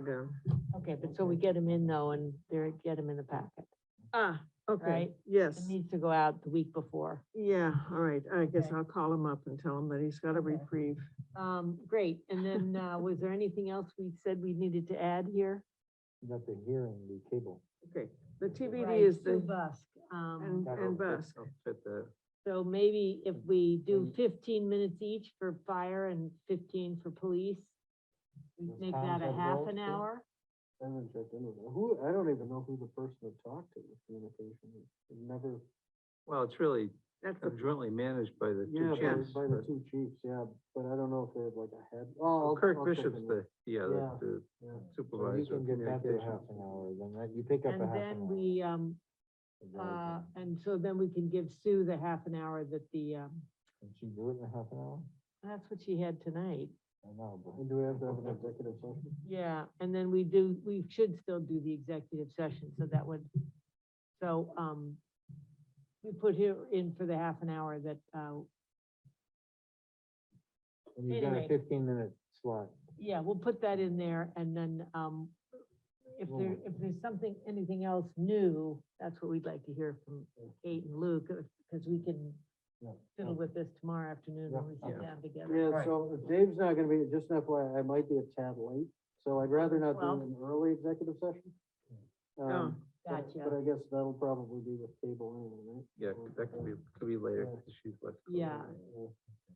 ago. Okay, but so we get them in though, and they're, get them in the packet. Ah, okay, Right. It yes, needs to go out the week before. yeah, all right, I guess Okay. I'll call him up and tell him that he's got a Okay. reprieve. Um, great, and then, uh, was there anything else we said we needed to add here? Not the hearing, the cable. Okay, the Right, TBD is Sue the, Busk, um, and, and Busk, Fit the, so maybe if we do And- fifteen minutes each for fire and fifteen for police, we Those make times that a have half those, an yeah. hour? I haven't checked into that. Who, I don't even know who the person to talk to with communication. is. It Never. Well, it's really that's the, jointly managed by the Yeah, two by- chiefs. by the but- two chiefs, yeah, but I don't know if they have like a head. Oh, Well, I'll- Kirk I'll check Bishop's into it. the, yeah, Yeah. the- the Yeah. So You supervisor can of get that to a half communications. an hour, then that, you pick up a And half an hour. then we, um, is all uh, it is. and so then we can give Sue the half an hour that the, um, Can she do it in a half an hour? that's what she had tonight. I know, but. And do we have to have an executive session? Yeah, and then we do, we should still do the executive session, so that would, so, um, we put here in for the half an hour that, uh, And you've got a Anyway. fifteen minute slot. yeah, we'll put that in there, and then, um, if there, if there's something, anything else new, that's what we'd like to hear from Kate and Luke, because we can Yeah. fiddle with this tomorrow afternoon when we sit Yeah. down together. Yeah, Right. so if Dave's not gonna be, just an FYI, I might be a tad late, so I'd rather not Well- Oh, do an early executive session. Um, but- But Gotcha, I guess that'll probably be with cable anyway, right? Yeah, Or- that could be, could be later, Yeah. 'cause she's left. yeah, Yeah,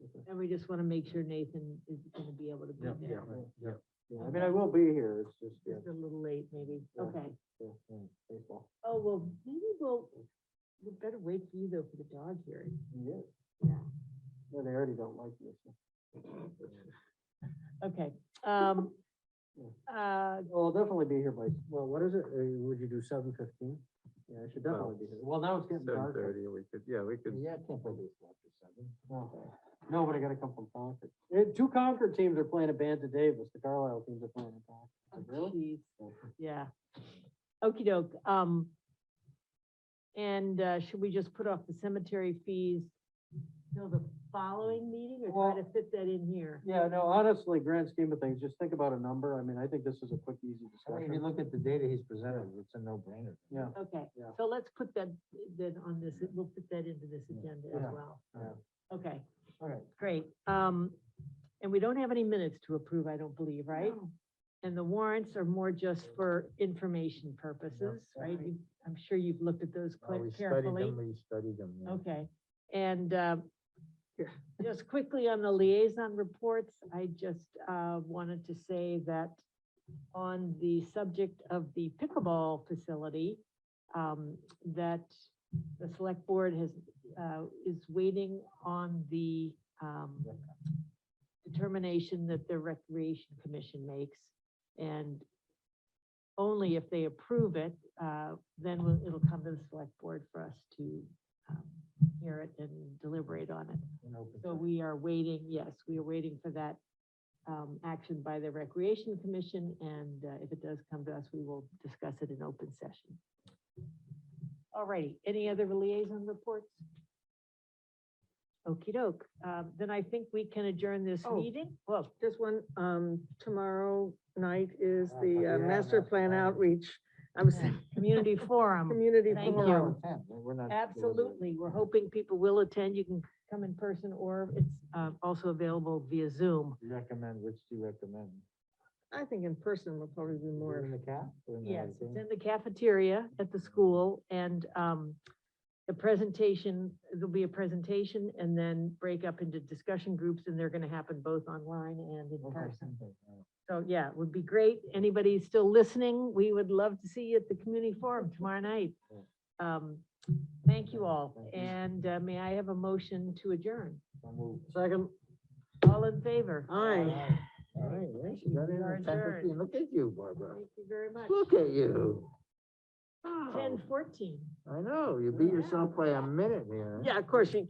okay. and we just want to make sure Nathan is gonna be able to be Yeah, there. Yeah, yeah, yeah, I mean, I will be here, it's just, yeah, Just a little late, maybe, Yeah. okay. yeah, yeah, baseball. Oh, well, maybe we'll, we better wait for you though for the dog hearing. Yeah, Yeah. yeah, they already don't like me, so. Okay, um, Yeah. uh, Well, I'll definitely be here by, well, what is it, Uh, would you do seven fifteen? Yeah, I should Well, definitely be here, well, now it's getting Seven dark. thirty, we could, yeah, we could, I can't play baseball after seven. No, but I gotta come from Concord. Eh, two Concord teams are playing a band to Davis, the Carlisle teams are playing a Concord. geez, yeah. Okey doke, um, and, uh, should we just put off the cemetery fees till the following meeting or try Well- to fit that in here? Yeah, no, honestly, grand scheme of things, just think about a number, I mean, I think this is a quick, easy I mean, if you discussion. look at the data he's presented, it's a no-brainer. Yeah, Okay, Yeah. so let's put that, then on this, we'll put that into this agenda as Yeah. well. Uh, Yeah. Okay, all right. Great, um, and we don't have any minutes to approve, I don't believe, right? And the warrants are more just for information purposes, right? You- I'm sure you've looked at those Uh, We quite studied carefully. them, we studied them. Mm-hmm. yeah. Okay, and, uh, Yeah. just quickly on the liaison reports, I just, uh, wanted to say that on the subject of the pickleball facility, um, that the select board has, uh, is waiting on the, um, determination that the recreation commission makes. And only if they approve it, uh, then we'll- it'll come to the select board for us to um, hear it and deliberate on it. An open So session. we are waiting, yes, we are waiting for that um, action by the Recreation Commission, and uh, if it does come to us, we will discuss it in open session. All righty, any other liaison reports? okey doke, Um, then I think we can adjourn this Oh. meeting. Well, Just one, um, tomorrow night is Oh, the uh, yeah, master master plan plan. outreach, I'm saying, Uh, community forum, community Thank We're forum. not intent, we're not- absolutely, we're hoping people will attend, you can come in person, or it's uh, also available via Zoom. You Recommend, which do you recommend? I think in person will probably be More in more, the cap? or in the Yes, thing? it's in the cafeteria at the school and um, the presentation, there'll be a presentation and then break up into discussion groups and they're gonna happen both online and in Okay, person. something, all right. So yeah, it would be great. Anybody still listening, we would love to see you at the community forum tomorrow night. Yeah. Um, Thank you all Thank you. and uh, may I have a motion to adjourn? So moved. second, All in favor? aye. All right, yeah, she got in We're at 10:15. adjourned. Look at you, Barbara. Thank you very much. Look at you. Oh, Ten fourteen. I know, you beat yourself by a minute here. Yeah, of course, you